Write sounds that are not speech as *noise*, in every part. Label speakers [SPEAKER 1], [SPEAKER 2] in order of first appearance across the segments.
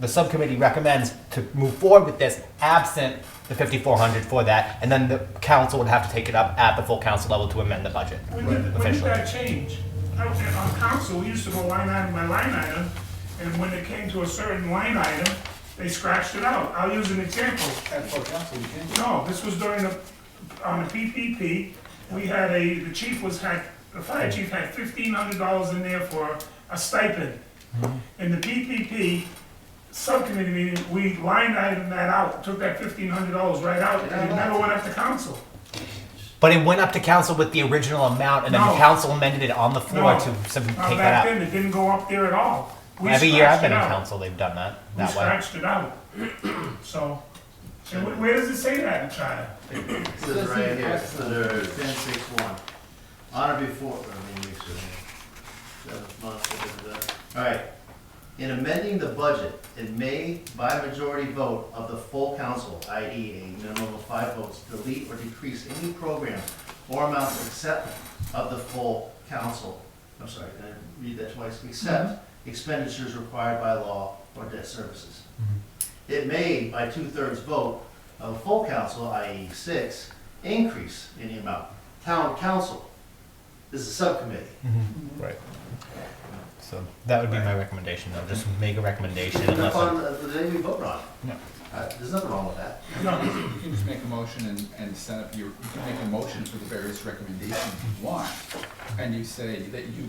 [SPEAKER 1] the subcommittee recommends to move forward with this absent the 5,400 for that, and then the council would have to take it up at the full council level to amend the budget
[SPEAKER 2] When did, when did
[SPEAKER 1] officially.
[SPEAKER 2] that change? I was at- On council, we used to go line item by line item, and when it came to a certain line item, they scratched it out. I'll use an example.
[SPEAKER 3] At full council, you can't.
[SPEAKER 2] No, this was during the, on the PPP, we had a, the chief was had, the fire chief had fifteen hundred dollars in there for a stipend.
[SPEAKER 3] Mm-hmm.
[SPEAKER 2] In the PPP subcommittee meeting, we line item that out, took that fifteen hundred dollars right out, and it never went up to council.
[SPEAKER 1] But it went up to council with the original amount, and then the
[SPEAKER 2] No.
[SPEAKER 1] council amended it on the floor
[SPEAKER 2] No.
[SPEAKER 1] to sim-
[SPEAKER 2] Now,
[SPEAKER 1] take
[SPEAKER 2] back
[SPEAKER 1] that out.
[SPEAKER 2] then, it didn't go up there at all. We
[SPEAKER 1] Every year I've
[SPEAKER 2] scratched
[SPEAKER 1] been
[SPEAKER 2] it
[SPEAKER 1] in
[SPEAKER 2] out.
[SPEAKER 1] council, they've done that,
[SPEAKER 2] We
[SPEAKER 1] that way.
[SPEAKER 2] scratched it out. *clears throat* So, and wh- where does it say that in the charter?
[SPEAKER 4] This is right here, it's under ten six one. On or before, I mean, weeks ago. Seventh month, da, da, da, da. All right. In amending the budget, it may, by majority vote of the full council, i.e. a minimum of five votes, delete or decrease any program or amounts except of the full council. I'm sorry, did I read that twice? Except expenditures required by law or debt services. It may, by two-thirds vote of a full council, i.e. six, increase any amount. Town council is a subcommittee.
[SPEAKER 1] Right. So that would be my recommendation, though, just make a recommendation unless.
[SPEAKER 4] That's on the Uh, the day we vote on it.
[SPEAKER 1] Yeah.
[SPEAKER 4] Uh, There's nothing wrong with that.
[SPEAKER 3] You can just make a motion and, and set up your, you can make a motion for the various recommendations you want. And you say that you,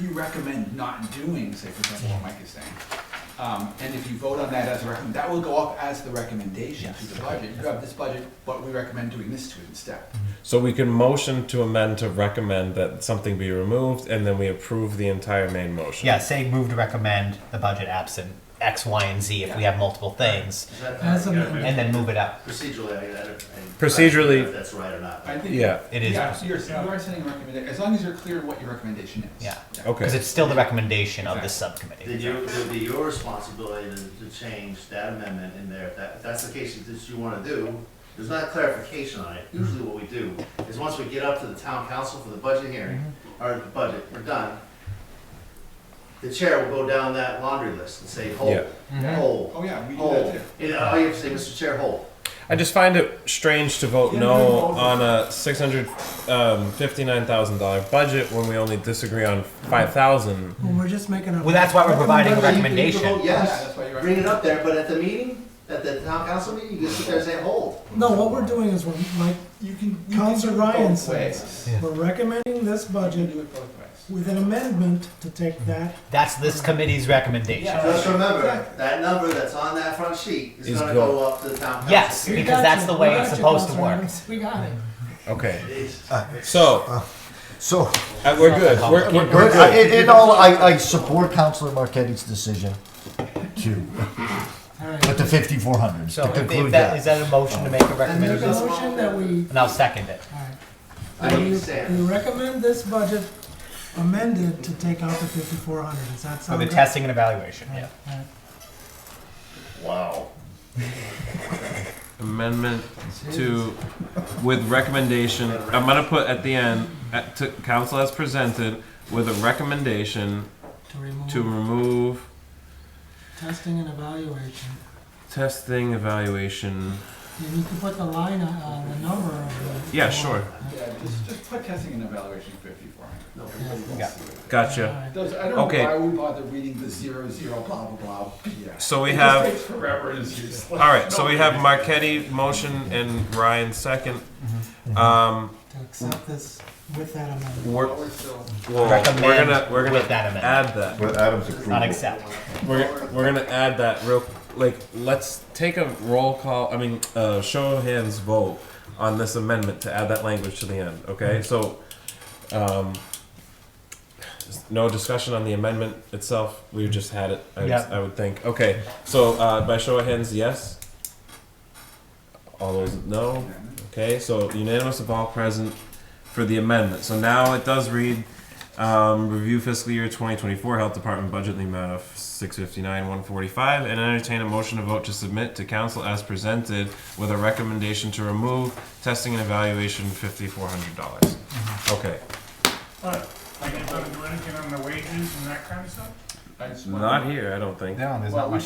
[SPEAKER 3] you recommend not doing, say for example, what Mike is saying. Um, and if you vote on that as a recommend, that will go up as the recommendation to the budget. You have this budget, but we recommend doing this to it instead.
[SPEAKER 5] So we can motion to amend to recommend that something be removed, and then we approve the entire main motion.
[SPEAKER 1] Yeah, say move to recommend the budget absent X, Y, and Z if we have multiple things,
[SPEAKER 4] Is that-
[SPEAKER 3] As amended.
[SPEAKER 1] and then move it up.
[SPEAKER 4] Procedurally, I, I don't. I-
[SPEAKER 5] Procedurally-
[SPEAKER 4] I don't know If that's right or not.
[SPEAKER 3] I think.
[SPEAKER 5] Yeah.
[SPEAKER 1] It is.
[SPEAKER 3] Yeah, so you're, you are sending a recommendation, as long as you're clear what your recommendation is.
[SPEAKER 1] Yeah.
[SPEAKER 5] Okay.
[SPEAKER 1] Because it's still the recommendation of the
[SPEAKER 4] Then
[SPEAKER 1] subcommittee.
[SPEAKER 4] you, it would be your responsibility to, to change that amendment in there. If that, if that's the case that you wanna do, there's not clarification on
[SPEAKER 3] Mm-hmm.
[SPEAKER 4] it. Usually what we do is once we get up to the town council for the budget hearing,
[SPEAKER 3] Mm-hmm.
[SPEAKER 4] or the budget, we're done. The chair will go down that laundry list and say, hold,
[SPEAKER 1] Mhm.
[SPEAKER 4] hold,
[SPEAKER 3] Oh, yeah, we do that
[SPEAKER 4] hold.
[SPEAKER 3] too.
[SPEAKER 4] And all you have to say, Mr. Chair, hold.
[SPEAKER 5] I just find it strange to vote
[SPEAKER 3] Yeah,
[SPEAKER 5] no
[SPEAKER 3] no.
[SPEAKER 5] on a six hundred um, fifty-nine thousand dollar budget when we only disagree on five thousand.
[SPEAKER 6] Well, we're just making a.
[SPEAKER 1] Well, that's why we're providing a
[SPEAKER 4] You can- you can
[SPEAKER 1] recommendation.
[SPEAKER 4] vote
[SPEAKER 3] Yeah, that's why
[SPEAKER 4] Yes,
[SPEAKER 3] you're-
[SPEAKER 4] bring it up there, but at the meeting, at the town council meeting, you just sit there and say, hold.
[SPEAKER 6] No, what we're doing is we're, like
[SPEAKER 3] You can. you can
[SPEAKER 6] Counselor
[SPEAKER 3] do it both
[SPEAKER 6] Ryan says,
[SPEAKER 3] ways.
[SPEAKER 1] Yeah.
[SPEAKER 6] we're recommending this
[SPEAKER 3] You can
[SPEAKER 6] budget
[SPEAKER 3] do it both ways.
[SPEAKER 6] with an amendment to take that.
[SPEAKER 1] That's this committee's recommendation.
[SPEAKER 3] Yeah.
[SPEAKER 4] Just remember, that number that's on that front sheet is
[SPEAKER 5] Is
[SPEAKER 4] gonna
[SPEAKER 5] go-
[SPEAKER 4] go up to the town council.
[SPEAKER 1] Yes,
[SPEAKER 6] We
[SPEAKER 1] because
[SPEAKER 6] got
[SPEAKER 1] that's
[SPEAKER 6] you.
[SPEAKER 1] the way
[SPEAKER 6] We
[SPEAKER 1] it's
[SPEAKER 6] got you,
[SPEAKER 1] supposed to
[SPEAKER 6] Counselor
[SPEAKER 1] work.
[SPEAKER 6] Adams. We got it.
[SPEAKER 5] Okay.
[SPEAKER 4] It's-
[SPEAKER 5] So
[SPEAKER 7] So,
[SPEAKER 5] uh, we're good. We're, we're
[SPEAKER 7] we're-
[SPEAKER 5] good.
[SPEAKER 7] I- uh, in, in all, I, I support Councilor Marquette's decision to, with the fifty-four hundred,
[SPEAKER 1] So
[SPEAKER 7] to
[SPEAKER 1] if- if
[SPEAKER 7] conclude
[SPEAKER 1] that, is
[SPEAKER 7] that.
[SPEAKER 1] that a motion to make a
[SPEAKER 6] There's a
[SPEAKER 1] recommendation?
[SPEAKER 6] motion that we,
[SPEAKER 1] And I'll second it.
[SPEAKER 4] I
[SPEAKER 6] we
[SPEAKER 4] understand.
[SPEAKER 6] recommend this budget amended to take out the fifty-four hundred. Does that
[SPEAKER 1] For
[SPEAKER 6] sound
[SPEAKER 1] the
[SPEAKER 6] good?
[SPEAKER 1] testing and evaluation, yeah.
[SPEAKER 4] Wow.
[SPEAKER 5] amendment to with recommendation. I'm gonna put at the end at, to council as presented with a recommendation
[SPEAKER 6] To remove
[SPEAKER 5] to remove
[SPEAKER 6] testing and evaluation.
[SPEAKER 5] testing evaluation.
[SPEAKER 6] You need to put the line, uh, the number of the.
[SPEAKER 5] Yeah, sure.
[SPEAKER 3] Yeah, just, just put testing and evaluation fifty-four hundred.
[SPEAKER 4] No,
[SPEAKER 1] Yeah.
[SPEAKER 5] Gotcha.
[SPEAKER 3] Those, I don't
[SPEAKER 5] Okay.
[SPEAKER 3] know why we bother reading the zero zero blah blah blah. Yeah.
[SPEAKER 5] So we
[SPEAKER 3] It just
[SPEAKER 5] have-
[SPEAKER 3] takes forever and is useless.
[SPEAKER 5] All right, so we have Marquetti motion and Ryan second.
[SPEAKER 1] Mm-hmm.
[SPEAKER 5] Um,
[SPEAKER 6] To accept this with that amendment.
[SPEAKER 5] we're,
[SPEAKER 3] Well, we're still-
[SPEAKER 5] we'll- we're
[SPEAKER 1] Recommend
[SPEAKER 5] gonna we're gonna
[SPEAKER 1] with that amendment.
[SPEAKER 5] add that.
[SPEAKER 8] With Adam's
[SPEAKER 1] Not
[SPEAKER 8] approval.
[SPEAKER 1] accept.
[SPEAKER 5] We're we're gonna add that real like let's take a roll call. I mean, uh, show of hands vote on this amendment to add that language to the end. Okay, so um, no discussion on the amendment itself. We just had it. I,
[SPEAKER 1] Yeah.
[SPEAKER 5] I would think. Okay, so uh, by show of hands, yes. All those no. Okay, so unanimous of all present for the amendment. So now it does read, um, review fiscal year 2024 Health Department budget in the amount of 659 145 and entertain a motion to vote to submit to council as presented with a recommendation to remove testing and evaluation $5,400. dollars Okay,
[SPEAKER 2] But, like, you're gonna do anything on the wages and that kind of stuff?
[SPEAKER 3] I just wanted-
[SPEAKER 5] not here, I don't think.
[SPEAKER 3] Well, we